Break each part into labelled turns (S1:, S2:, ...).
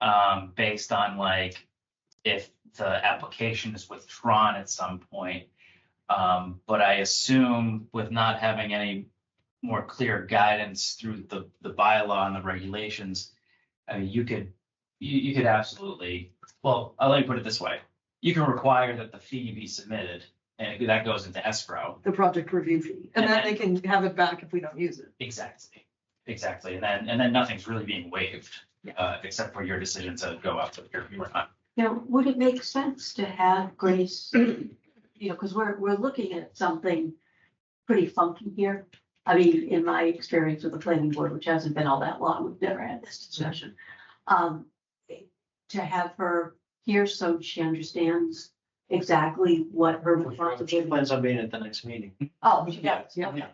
S1: um, based on like if the application is withdrawn at some point. Um, but I assume with not having any more clear guidance through the, the bylaw and the regulations, I mean, you could, you, you could absolutely, well, I'll let me put it this way. You can require that the fee be submitted and that goes into escrow.
S2: the project review fee, and then they can have it back if we don't use it.
S1: Exactly, exactly. And then, and then nothing's really being waived,
S2: Yeah.
S1: uh, except for your decision to go up to your, your time.
S3: Now, would it make sense to have Grace, you know, because we're, we're looking at something pretty funky here. I mean, in my experience with the planning board, which hasn't been all that long, we've never had this discussion. Um, to have her here so she understands exactly what her
S4: She
S3: responsibility.
S4: plans on being at the next meeting.
S3: Oh, she does,
S2: Yeah.
S3: okay, okay.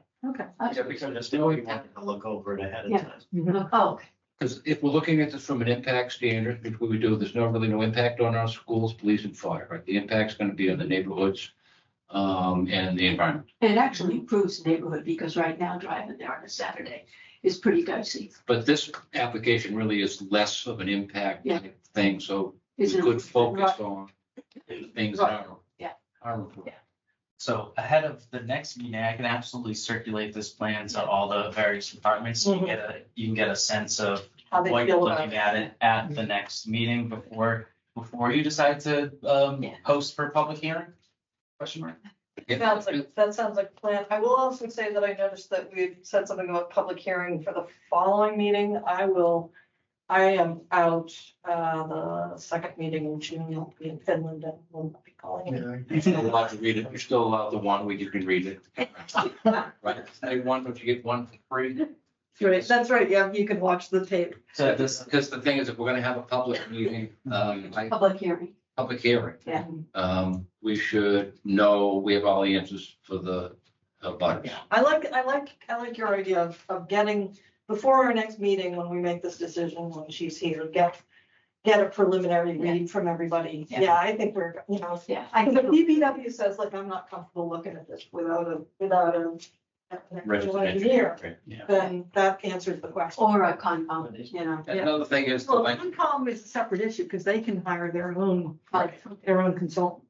S4: Yeah,
S3: okay.
S4: because there's no, you want to look over it ahead of
S3: Yeah.
S4: time.
S3: Oh,
S5: Because if we're looking at this from an impact standard, which we would do, there's no really no impact on our schools, police and fire, right? The impact's gonna be on the neighborhoods, um, and the environment.
S3: and it actually improves the neighborhood because right now driving there on a Saturday is pretty dicey.
S5: But this application really is less of an impact
S3: Yeah.
S5: type thing, so we
S3: Is it-
S5: could focus on the things that are.
S3: Yeah.
S5: Are important.
S1: So ahead of the next meeting, I can absolutely circulate this plan to all the various departments. You can get a, you can get a sense of
S3: Mhm. How they
S1: what you're
S3: feel about Mhm.
S1: looking at it at the next meeting before, before you decide to, um,
S3: Yeah.
S1: post for public hearing? Question mark?
S5: Yeah.
S6: Sounds like, that sounds like a plan. I will also say that I noticed that we had said something about public hearing for the following meeting. I will, I am out, uh, the second meeting in June, I'll be in Finland and will not be calling it.
S5: You're still allowed to read it, you're still allowed the one week you can read it. Right, say one, but you get one for free.
S6: Right, that's right, yeah, you can watch the tape.
S1: So
S5: This,
S1: this,
S5: because the thing is, if we're gonna have a public meeting, um, I
S3: Public hearing,
S5: public hearing.
S3: Yeah.
S5: Um, we should know, we have all the answers for the uh, butters.
S6: I like, I like, I like your idea of, of getting, before our next meeting, when we make this decision, when she's here, get, get a preliminary read from everybody.
S3: Yeah.
S6: Yeah, I think we're, you know,
S3: yeah.
S6: I think the BBW says like, I'm not comfortable looking at this without a, without a. an actual engineer,
S5: Yeah.
S6: then that answers the question.
S3: Or a Concom, you know.
S5: And Another thing is, the
S6: Well,
S5: lang-
S6: Concom is a separate issue because they can hire their own,
S3: Right.
S6: their own consultant.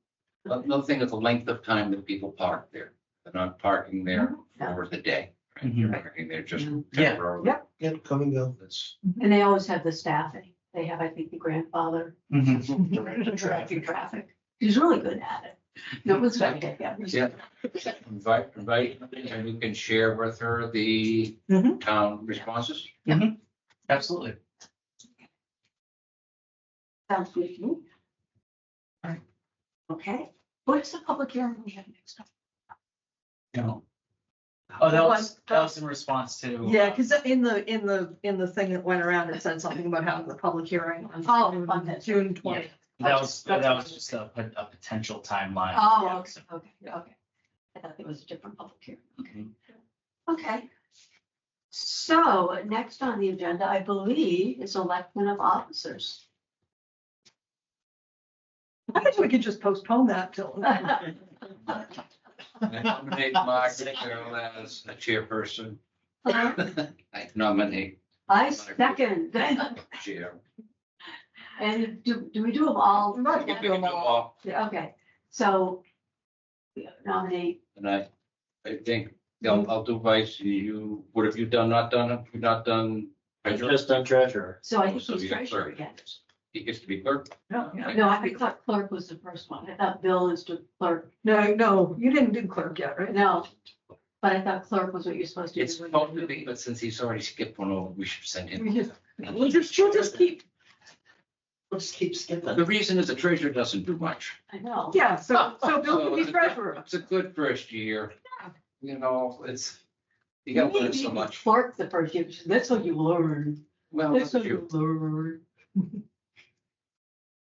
S5: another thing is the length of time that people park there. They're not parking there for the day. right? They're parking there just
S1: Yeah.
S5: temporarily.
S6: Yep.
S4: Yeah, come and go.
S5: That's,
S3: And they always have the staffing. They have, I think, the grandfather
S1: Mhm.
S4: Direct the
S3: directing
S4: traffic.
S3: traffic. He's really good at it. No one's gonna get him.
S5: yeah. Invite, invite, and you can share with her the
S6: Mhm.
S5: town responses.
S1: absolutely.
S3: Sounds good to me. Okay, what's the public hearing we have next time?
S1: You know. Oh, that was, that was in response to. uh,
S6: Yeah, because in the, in the, in the thing that went around, it said something about having the public hearing on.
S3: Oh, on that.
S6: June twentieth.
S1: That was, that was just a, a potential timeline.
S3: Oh, okay, okay, okay. I thought there was a different public hearing. Okay. Okay. So next on the agenda, I believe, is election of officers.
S6: I think we could just postpone that till.
S5: I
S3: Oh.
S5: nominate Mark Carroll as a chairperson. I nominate
S3: I second.
S5: chair.
S3: And do, do we do them all?
S6: Right,
S5: We can do them all.
S3: Okay, so we nominate,
S5: And I, I think, I'll, I'll do vice, you, what have you done, not done, have you not done?
S4: I've
S5: treasurer?
S4: just done treasurer.
S3: so I think
S5: So
S3: he's
S5: you're
S3: treasurer
S5: clerk.
S3: again.
S5: He gets to be clerk.
S6: No, no,
S3: No, I thought clerk was the first one. I thought Bill is the clerk.
S6: no, no, you didn't do clerk yet, right?
S3: No, but I thought clerk was what you're supposed to do.
S5: It's supposed to be, but since he's already skipped one over, we should send him.
S6: We just- We'll just, she'll just keep,
S4: We'll just keep skipping.
S5: The reason is the treasurer doesn't do much.
S3: I know.
S6: yeah, so, so Bill
S5: So
S6: can
S5: it's
S6: Oh, be
S5: a-
S6: treasurer.
S5: It's a good first year. You know, it's, you gotta learn so much.
S3: Clerk the first year, that's what you learn.
S5: Well,
S3: That's
S5: that's
S3: what
S5: you.
S3: you learn.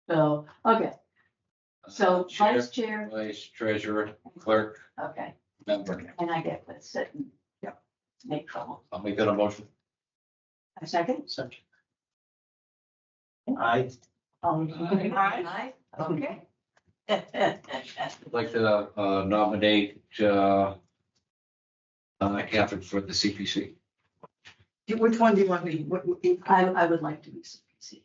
S3: So, okay, so
S5: Chair,
S3: vice chair,
S5: vice treasurer, clerk,
S3: okay,
S5: member.
S3: and I get this, sit and
S6: Yep.
S3: make trouble.
S5: I'll make that a motion.
S3: A second?
S4: I,
S3: Um, aye,
S5: Aye.
S3: okay.
S5: I'd like to uh, nominate uh, uh, Catherine for the CPC.
S6: Which one do you want to be? What- what-
S3: I, I would like to be CPC.